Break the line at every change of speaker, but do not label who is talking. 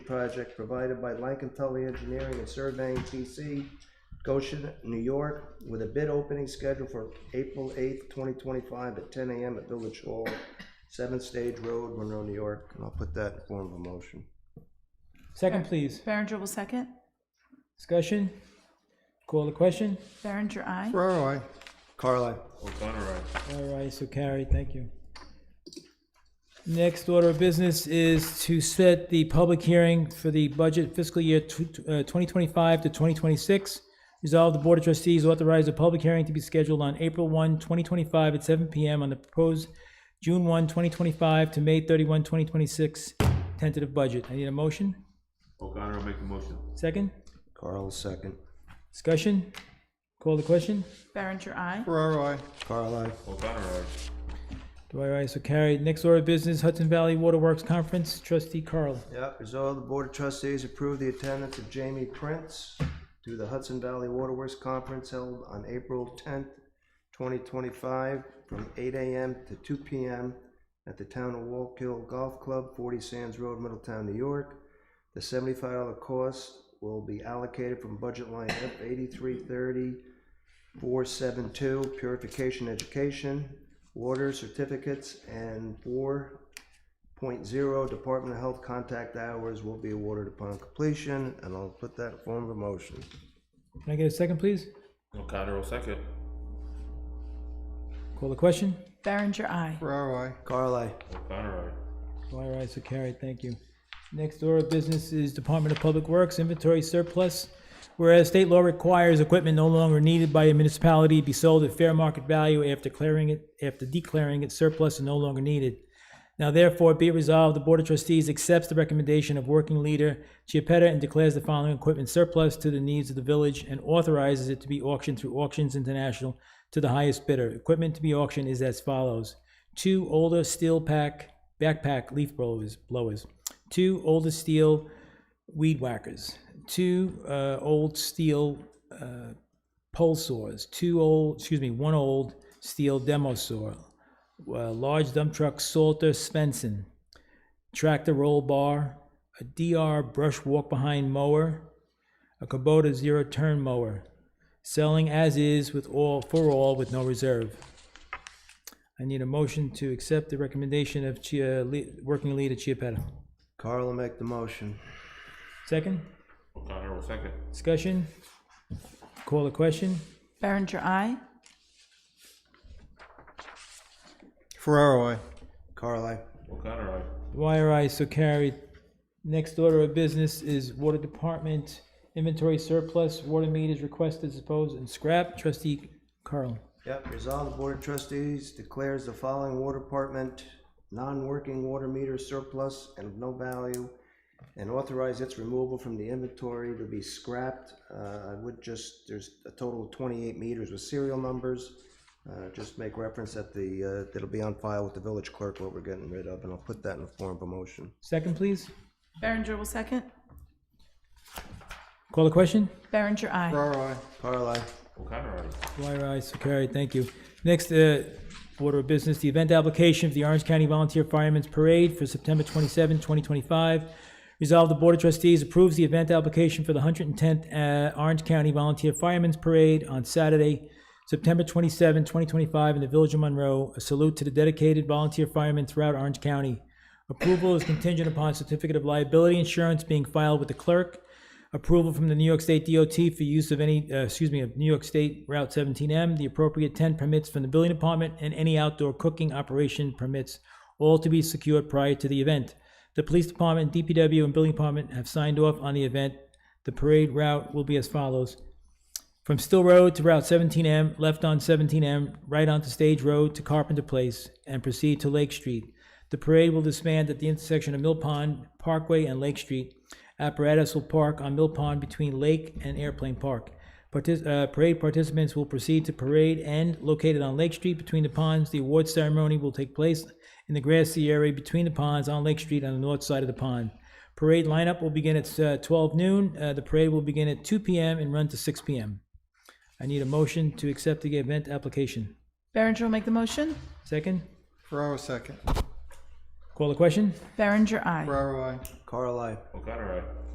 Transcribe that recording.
project provided by Lankin Tully Engineering and Surveying PC, Goshen, New York, with a bid opening scheduled for April eighth, twenty twenty-five at ten AM at Village Hall, Seventh Stage Road, Monroe, New York, and I'll put that in form of a motion.
Second, please.
Berenger will second.
Discussion? Call the question?
Berenger, aye.
Ferraro, I. Carl, I.
O'Connor, aye.
All right, so carried, thank you. Next order of business is to set the public hearing for the budget fiscal year tw- tw- uh, 2025 to 2026. Resolve the Board of Trustees authorize a public hearing to be scheduled on April 1, 2025 at 7 PM on the proposed June 1, 2025 to May 31, 2026 tentative budget. I need a motion?
O'Connor will make the motion.
Second?
Carl, second.
Discussion? Call the question?
Berenger, aye.
Ferraro, I. Carl, I.
O'Connor, aye.
Dwyer, ayes so carried. Next order of business, Hudson Valley Waterworks Conference, trustee Carl.
Yep, resolve the Board of Trustees approve the attendance of Jamie Prince to the Hudson Valley Waterworks Conference held on April tenth, twenty twenty-five, from eight AM to two PM at the Town of Walk Hill Golf Club, forty Sands Road, Middletown, New York. The seventy-five dollar cost will be allocated from budget line F eighty-three thirty four seven two, purification education, water certificates, and four Point zero, Department of Health contact hours will be awarded upon completion, and I'll put that in form of a motion.
Can I get a second, please?
O'Connor will second.
Call the question.
Berenger, aye.
Ferraro, I. Carl, I.
O'Connor,
Dwyer, ayes so carried. Thank you. Next order of business is Department of Public Works inventory surplus. Whereas state law requires equipment no longer needed by a municipality be sold at fair market value after declaring it, after declaring it surplus and no longer needed. Now therefore be it resolved, the Board of Trustees accepts the recommendation of working leader Chiapetta and declares the following equipment surplus to the needs of the village and authorizes it to be auctioned through Auctions International to the highest bidder. Equipment to be auctioned is as follows. Two older steel pack, backpack leaf blowers, blowers. Two older steel weed whackers. Two uh, old steel uh, pole saws. Two old, excuse me, one old steel demo saw a Uh, large dump truck Salter Svensson, tractor roll bar, a DR brush walk behind mower, a Kubota zero turn mower, selling as is with all for all with no reserve. I need a motion to accept the recommendation of Chia, Le- working leader Chiapetta.
Carl will make the motion.
Second,
aye. O'Connor will second.
discussion. Call the question.
Berenger, aye.
Ferraro, I. Carl, I.
O'Connor, aye.
Dwyer, aye, so carried. Next order of business is Water Department inventory surplus, water meters requested, disposed, and scrap. Trustee Carl.
Yep, resolve the Board of Trustees declares the following water department non-working water meter surplus and of no value and authorize its removal from the inventory to be scrapped. Uh, I would just, there's a total of twenty-eight meters with serial numbers. Uh, just make reference that the, uh, that'll be on file with the village clerk what we're getting rid of, and I'll put that in the form of a motion.
Second, please.
Berenger will second.
Call the question.
Berenger, aye.
Carl, I.
O'Connor, aye.
Dwyer, aye, so carried. Thank you. Next uh, order of business, the event application for the Orange County Volunteer Firemen's Parade for September 27, 2025. Resolved, the Board of Trustees approves the event application for the 110th uh, Orange County Volunteer Firemen's Parade on Saturday, September 27, 2025, in the Village of Monroe. A salute to the dedicated volunteer firemen throughout Orange County. Approval is contingent upon certificate of liability insurance being filed with the clerk approval from the New York State DOT for use of any, uh, excuse me, of New York State Route 17M, the appropriate tent permits from the building department, and any outdoor cooking operation permits, all to be secured prior to the event. The police department, DPW, and building department have signed off on the event. The parade route will be as follows. From Still Road to Route 17M, left on 17M, right onto Stage Road to Carpenter Place, and proceed to Lake Street. The parade will disband at the intersection of Mill Pond, Parkway, and Lake Street. Apparatus will park on Mill Pond between Lake and Airplane Park. Partic- uh, parade participants will proceed to Parade End, located on Lake Street between the ponds. The award ceremony will take place in the grassy area between the ponds on Lake Street on the north side of the pond. Parade lineup will begin at uh, 12 noon. Uh, the parade will begin at 2 p.m. and run to 6 p.m. I need a motion to accept the event application.
Berenger will make the motion.
Second?
Ferraro second.
Call the question?
Berenger, aye.
Ferraro, I.
Carl, I.
O'Connor, aye.